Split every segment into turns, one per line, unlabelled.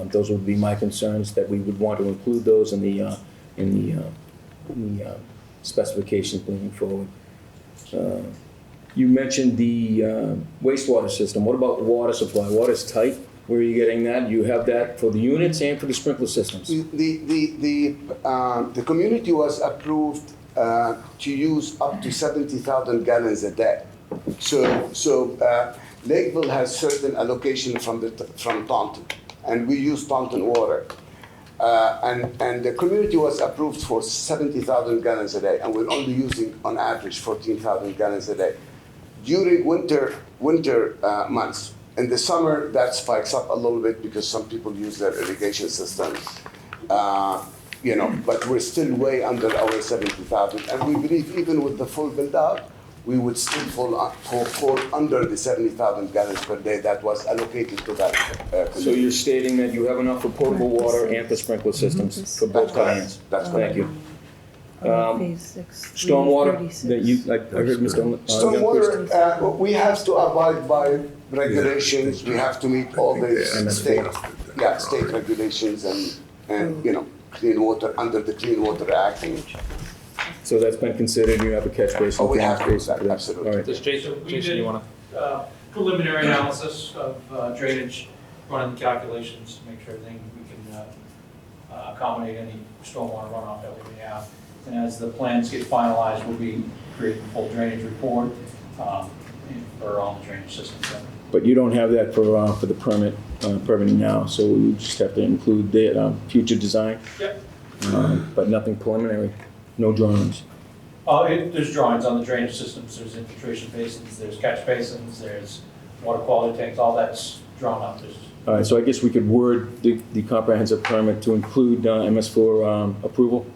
Um, those would be my concerns, that we would want to include those in the, uh, in the, uh, in the uh, specifications moving forward. Uh, You mentioned the uh, wastewater system. What about water supply? Water's tight. Where are you getting that? You have that for the units and for the sprinkler systems?
The, the, the, um, the community was approved uh, to use up to 70,000 gallons a day. So, so uh, Lakeville has certain allocation from, the, from Taunton, and we use Taunton water. Uh, and, and the community was approved for 70,000 gallons a day, and we're only using on average 14,000 gallons a day. During winter, winter uh, months, in the summer, that spikes up a little bit because some people use their irrigation systems. Uh, you know, but we're still way under our 70,000, and we believe even with the full build out, we would still fall, u- fall, fall under the 70,000 gallons per day that was allocated to that uh, community.
So you're stating that you have enough for potable water and for sprinkler systems for both
That's correct.
plans?
That's
Thank
correct.
you.
Phase six.
Um, Stormwater, that you,
36.
like, I heard Mr. Young- uh,
Stormwater, uh, we have to abide by regulations, we have to meet all the state, yeah, state regulations and,
Mm.
and, you know, clean water, under the Clean Water Act.
So that's been considered, you have a catch basin?
Oh, we
catch
have to,
basin for that.
absolutely.
All right.
Does Jason,
We
Jason,
did-
you wanna?
uh, preliminary analysis of uh, drainage, running the calculations to make sure everything, we can uh, uh, accommodate any stormwater runoff that we may have. And as the plans get finalized, we'll be creating a full drainage report um, and for all the drainage systems.
But you don't have that for, uh, for the permit, uh, permitting now, so we just have to include the, um, future design?
Yep.
Um, But nothing preliminary, no drawings?
Uh, it- There's drawings on the drainage systems, there's infiltration basins, there's catch basins, there's water quality tanks, all that's drawn up. There's
All right, so I guess we could word the, the comprehensive permit to include, uh, MS four, um, approval?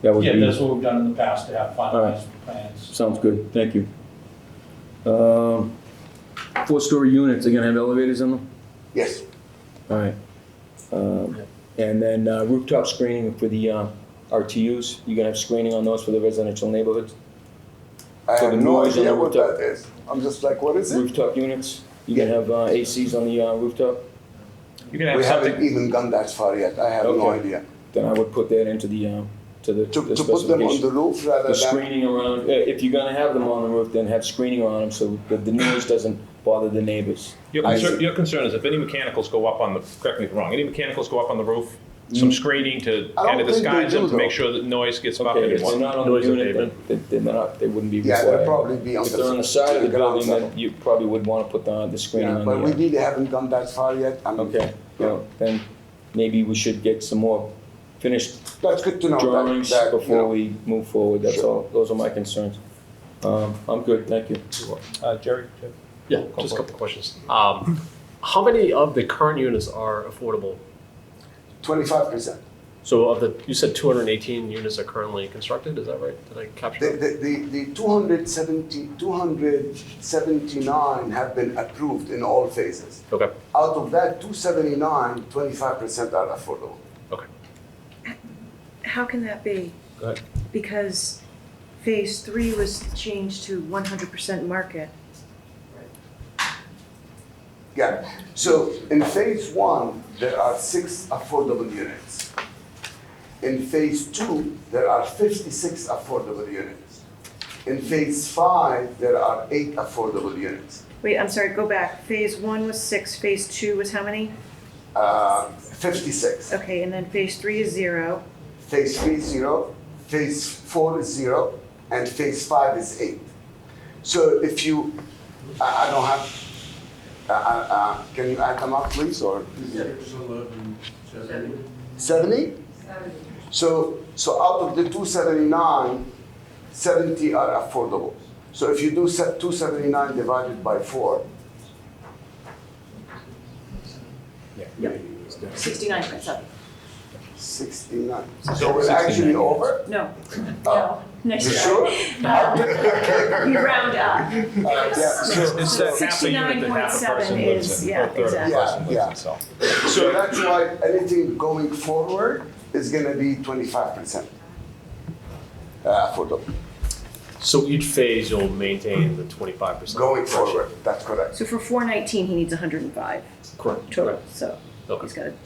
That would be.
Yeah, that's what we've done in the past to have finalized plans.
Sounds good, thank you. Um, Four-story units, they're gonna have elevators in them?
Yes,
All right. Um, And then uh, rooftop screening for the uh, RTUs, you gonna have screening on those for the residential neighborhoods?
I
So
have
the
no
noise on
idea
the
what
rooftop-
that is. I'm just like, what is it?
Rooftop units, you gonna have uh, ACs on the uh, rooftop?
You can have
We haven't
something,
even gone that far yet, I have no
Okay.
idea.
Then I would put that into the, um, to the
To,
the
to put them on the
specification.
roof rather
The
than,
screening around, uh, if you're gonna have them on the roof, then have screening on them so that the noise doesn't bother the neighbors.
your
I
concern,
see.
your concern is if any mechanicals go up on the, correct me if I'm wrong, any mechanicals go up on the roof, some screening to
Mm. I
kind
don't
of
think
disguise
they
them,
do,
to make
though.
sure that noise gets
Okay,
buffeted.
if they're not on the
Noise
unit, then-
abatement.
then they're not, they wouldn't be
yeah,
required.
they'll probably be on the.
If they're on the side of the
ground
building, then
level.
you probably would want to put the, the screen
Yeah,
on
but we
the, uh,
really haven't gone that far yet. I'm-
okay, well, then maybe we should get some more finished
That's good to know. that-
drawings
that, you know.
before we move forward, that's
Sure.
all, those are my concerns. Um, I'm good, thank you.
Uh, Jerry? Jeff?
Yeah,
Go
just
for it.
a couple questions. Um, how many of the current units are affordable?
Twenty-five percent.
So of the, you said two hundred and eighteen units are currently constructed, is that right? Did I
The,
capture? that?
the, the, the 270, 279 have been approved in all phases.
Okay,
Out of that 279, 25% are affordable.
okay.
How can that be?
Go ahead.
Because phase three was changed to one hundred percent market.
Yeah. So in phase one, there are six affordable units. In phase two, there are 56 affordable units. In phase five, there are eight affordable units.
Wait, I'm sorry, go back. Phase one was six, phase two was how many?
Uh, 56.
Okay, and then phase three is zero.
phase three is zero, phase four is zero, and phase five is eight. So if you, I, I don't have, uh, uh, uh, can you add them up, please, or? Seventy? So, so out of the two seventy-nine, seventy are affordable. So if you do two seventy-nine divided by four,
Sixty-nine point seven.
sixty-nine.
So
So we're actually
69.
over?
No,
Oh.
Uh,
next
You sure?
We round
Uh,
up.
yeah, so-
It's that half a unit that half a
69.7
person lives
is-
in,
yeah,
or a third of
exactly.
a person
Yeah,
lives in, so.
So that's why anything going forward is gonna be twenty-five percent. Uh, for the,
So each phase you'll maintain the twenty-five percent?
going forward, that's correct.
So for four nineteen, he needs hundred and five
Correct.
total, so
Okay.
he's got a